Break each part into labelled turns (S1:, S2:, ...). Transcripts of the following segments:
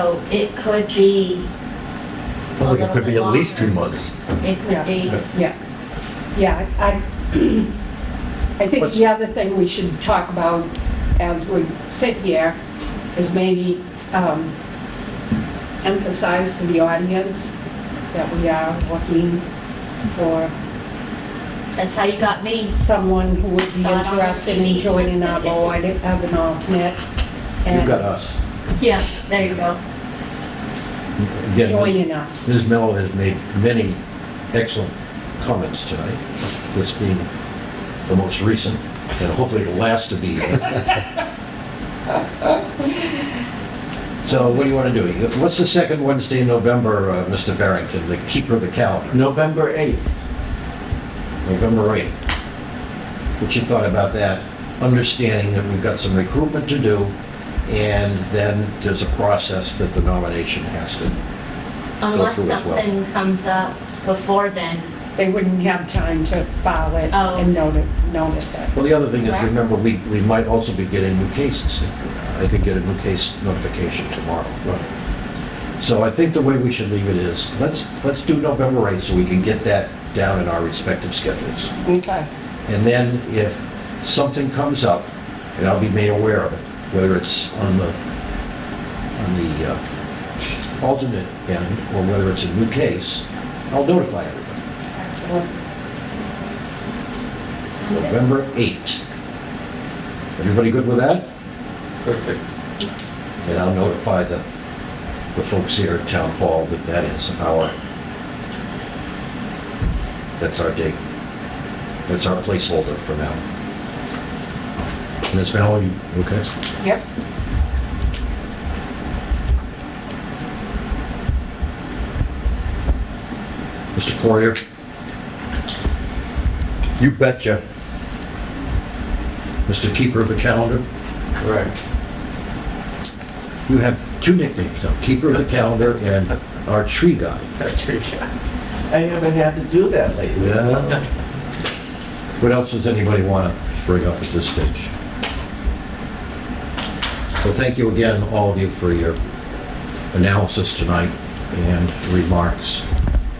S1: So it could be,
S2: Sounds like it could be at least two months.
S1: it could be,
S2: Yeah.
S3: Yeah, yeah, I, I think
S2: What's-
S3: the other thing we should talk about as we sit here is maybe um, emphasize to the audience that we are looking for
S1: that's how you got me.
S3: someone who would be
S1: So I don't have
S3: interested
S1: to
S3: in
S1: be-
S3: joining our board as an alternate.
S4: You've
S3: and
S4: got us.
S1: Yeah, there you go.
S4: Again, Ms.
S3: Joining us.
S4: Ms. Mello has made many excellent comments tonight, this being the most recent, and hopefully the last of the year. So what do you want to do? You- What's the second Wednesday in November, uh, Mr. Barrington, the keeper of the calendar?
S5: November 8th.
S4: November 8th. What you thought about that, understanding that we've got some recruitment to do, and then there's a process that the nomination has to
S1: Unless
S4: through as well.
S1: something comes up before then,
S3: They wouldn't have time to file it
S1: Oh.
S3: and noti- notice it.
S4: Well, the other thing is,
S1: Right.
S4: remember, we, we might also be getting new cases. I could get a new case notification tomorrow. So I think the way we should leave it is, let's, let's do November 8th so we can get that down in our respective schedules.
S3: Okay.
S4: And then if something comes up, and I'll be made aware of it, whether it's on the, on the uh, alternate end or whether it's a new case, I'll notify everybody.
S3: Excellent.
S1: that's it.
S4: November 8th. Everybody good with that?
S5: Perfect.
S4: And I'll notify the, the folks here at Town Hall that that is our, that's our date. That's our placeholder for now. Ms. Mallon, you okay?
S3: Yep.
S4: Mr. Poirier? You betcha. Mr. Keeper of the Calendar?
S5: Correct.
S4: You have two nicknames now, Keeper of the Calendar and our Tree Guy.
S5: Patricia. I haven't had to do that lately.
S4: Yeah. What else does anybody want to bring up at this stage? Well, thank you again, all of you, for your analysis tonight and remarks.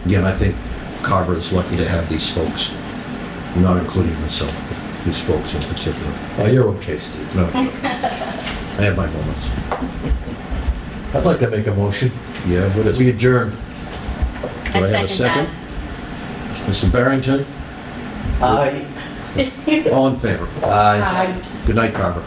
S4: Again, I think Carver is lucky to have these folks, not including myself, but these folks in particular.
S2: Oh, you're okay, Steve.
S4: No, I have my moments.
S2: I'd like to make a motion.
S4: Yeah, what is
S2: We
S4: it?
S2: adjourn.
S4: Do I have
S1: second
S4: a second? Mr. Barrington,
S5: I,
S4: all in favor?
S2: Aye.
S1: that. Aye.
S4: Good night, Carver.